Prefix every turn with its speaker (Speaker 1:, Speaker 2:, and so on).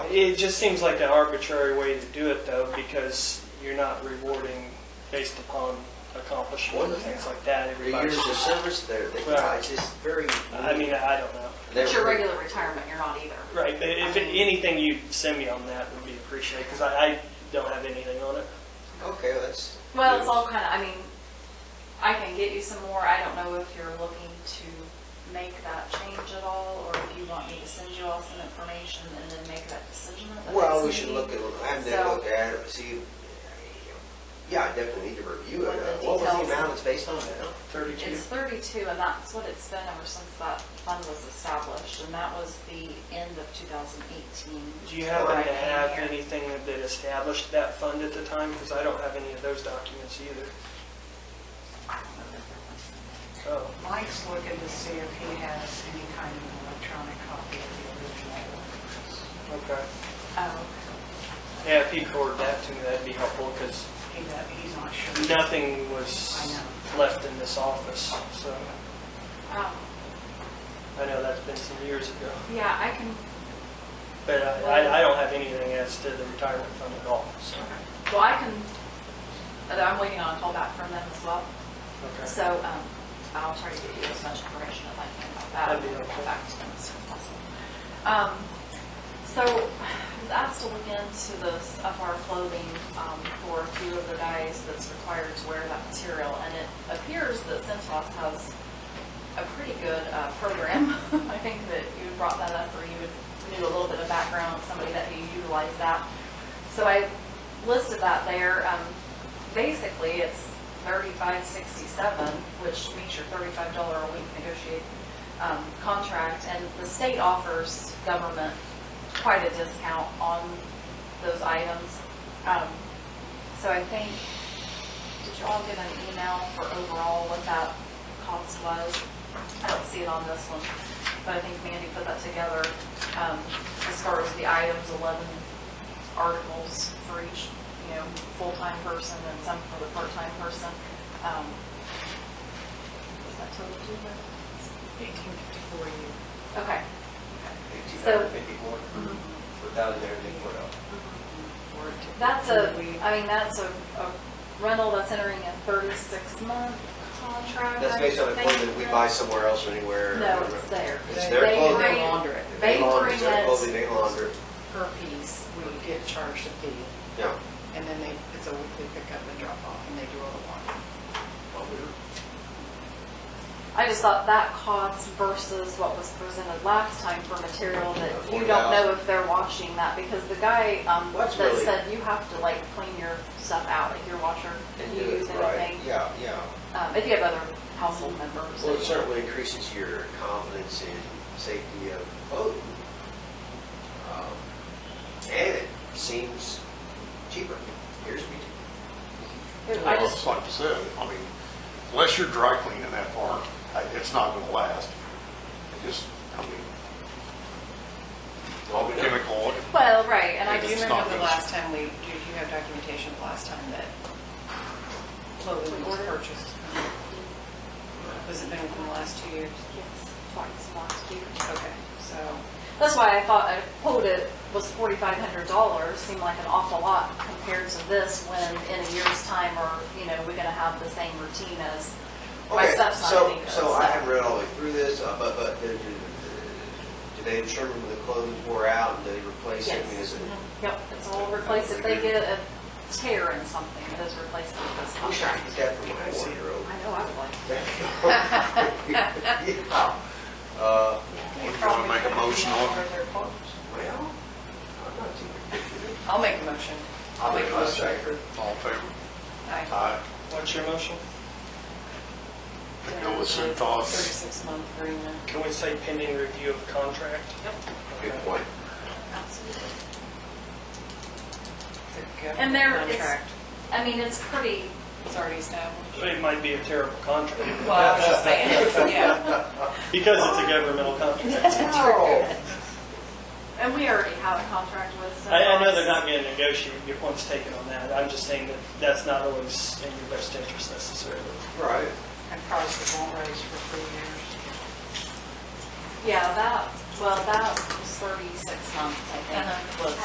Speaker 1: It just seems like an arbitrary way to do it though, because you're not rewarding based upon accomplishment and things like that.
Speaker 2: Your years
Speaker 1: Everybody's
Speaker 2: of
Speaker 1: just,
Speaker 2: service there, they,
Speaker 1: Right.
Speaker 2: it's just very.
Speaker 1: I mean, I don't know.
Speaker 2: they're-
Speaker 3: It's your regular retirement, you're not either.
Speaker 1: Right, but if it- anything you send me on that would be appreciated, because I, I don't have anything on it.
Speaker 2: Okay, well, that's.
Speaker 3: Well, it's all kind of, I mean, I can get you some more, I don't know if you're looking to make that change at all, or if you want me to send you all some information and then make that decision at the next meeting.
Speaker 2: Well, we should look at, I'm gonna
Speaker 3: So-
Speaker 2: look at it, see, yeah, I definitely need to review
Speaker 3: What
Speaker 2: it.
Speaker 3: the
Speaker 2: What was the
Speaker 3: details-
Speaker 2: amount it's based on now?
Speaker 1: Thirty-two.
Speaker 3: It's 32, and that's what it's been ever since that fund was established, and that was the end of 2018.
Speaker 1: Do you happen
Speaker 3: Right
Speaker 1: to have
Speaker 3: here.
Speaker 1: anything that established that fund at the time? Because I don't have any of those documents either. Oh,
Speaker 4: Mike's looking to see if he has any kind of electronic copy of the original ordinance.
Speaker 1: okay.
Speaker 3: Oh,
Speaker 1: Yeah, if you forward that to me, that'd be helpful, because
Speaker 4: He, that- he's not sure.
Speaker 1: nothing was left in this office, so
Speaker 3: um,
Speaker 1: I know that's been some years ago.
Speaker 3: yeah, I can,
Speaker 1: But I, I- I don't have anything as to the retirement fund at all, so.
Speaker 3: well, I can, I'm waiting on a call back from them as well.
Speaker 1: Okay.
Speaker 3: So um, I'll try to give you as much information as I can about that.
Speaker 1: That'd be helpful.
Speaker 3: Back to them as soon as possible. Um, So I was asked to look into this FR clothing um, for a few of the guys that's required to wear that material. And it appears that Centos has a pretty good uh, program. I think that you brought that up or you knew a little bit of background, on somebody that you utilized that. So I listed that there. Um, Basically, it's thirty-five sixty-seven, which means your thirty-five dollar a week negotiate um, contract. And the state offers government quite a discount on those items. Um, So I think, did you all get an email for overall what that cost was? I don't see it on this one, but I think Mandy put that together um, as far as the items, 11 articles for each, you know, full-time person and some for the part-time person. Um, Is that total two hundred?
Speaker 4: 1854 year.
Speaker 3: Okay. So-
Speaker 2: 1,854 for 1,054 dollars.
Speaker 3: That's a, I mean, that's a a rental that's entering a 36-month contract.
Speaker 2: That's
Speaker 3: I
Speaker 2: based on
Speaker 3: think
Speaker 2: equipment we buy somewhere else or anywhere.
Speaker 3: No, it's there.
Speaker 2: It's their
Speaker 3: They
Speaker 2: clothing.
Speaker 3: bring-
Speaker 4: launder it.
Speaker 3: They
Speaker 2: launder-
Speaker 3: bring
Speaker 2: It's their clothing, they
Speaker 3: it
Speaker 2: launder. it.
Speaker 4: Per piece, we get charged a fee,
Speaker 2: Yeah.
Speaker 4: and then they, it's a weekly pickup and drop off, and they do all the laundry.
Speaker 3: I just thought that cost versus what was presented last time for material that you don't know
Speaker 2: 4,000.
Speaker 3: if they're washing that, because the guy, um, that
Speaker 2: That's really-
Speaker 3: said you have to like clean your stuff out, like your washer,
Speaker 2: And
Speaker 3: if you
Speaker 2: do it
Speaker 3: use
Speaker 2: right.
Speaker 3: anything.
Speaker 2: Yeah, yeah.
Speaker 3: Um, if you have other household members.
Speaker 2: Well, it certainly increases your confidence in safety of clothing. Um, And it seems cheaper, appears to be cheaper.
Speaker 3: I
Speaker 5: Well,
Speaker 3: just,
Speaker 5: it's like you said, I mean, unless you're dry cleaning that far, I- it's not gonna last. It just, I mean, all the chemical,
Speaker 3: well, right, and I
Speaker 4: I do
Speaker 3: just,
Speaker 5: It's
Speaker 4: remember
Speaker 5: not
Speaker 4: the
Speaker 5: those.
Speaker 4: last time we, did you have documentation the last time that clothing was purchased? Has it been within the last two years?
Speaker 3: yes, twice last year.
Speaker 4: Okay, so.
Speaker 3: That's why I thought a quoted was forty-five hundred dollars seemed like an awful lot compared to this when in a year's time or, you know, we're gonna have the same routine as my
Speaker 2: Okay,
Speaker 3: stuff's not
Speaker 2: so,
Speaker 3: getting good,
Speaker 2: so I haven't read all the way through this, uh, but, but did, did they determine when the clothing wore out and did they replace it? I mean, is
Speaker 3: Yes. Mm-hmm.
Speaker 2: it-
Speaker 3: Yep, it's all replaced. If they get a tear in something, it is replaced with this
Speaker 2: I wish I
Speaker 3: contract.
Speaker 2: could get that from my one-year-old.
Speaker 3: I know I would like.
Speaker 2: Yeah. Uh,
Speaker 5: you wanna make a motion on it?
Speaker 2: well, I'm not too particular.
Speaker 4: I'll make a motion.
Speaker 2: I'll make a motion.
Speaker 5: all in favor?
Speaker 4: Aye.
Speaker 5: Aye.
Speaker 1: What's your motion?
Speaker 5: Go with Cintas.
Speaker 4: 36 month agreement.
Speaker 1: Can we say pending review of contract?
Speaker 2: Good point.
Speaker 3: And there is-
Speaker 4: Contract,
Speaker 3: I mean, it's pretty,
Speaker 4: it's already established.
Speaker 1: It might be a terrible contract,
Speaker 4: Well, I was just saying, yeah.
Speaker 1: because it's a governmental contract.
Speaker 3: and we already have a contract with.
Speaker 1: I, I know
Speaker 3: Sunrise.
Speaker 1: they're not gonna negotiate, your point's taken on that, I'm just saying that that's not always in your best interest necessarily.
Speaker 2: Right.
Speaker 4: And prices won't raise for three years.
Speaker 3: Yeah, that, well, that was thirty-six months, I think,
Speaker 4: Uh-huh.
Speaker 3: was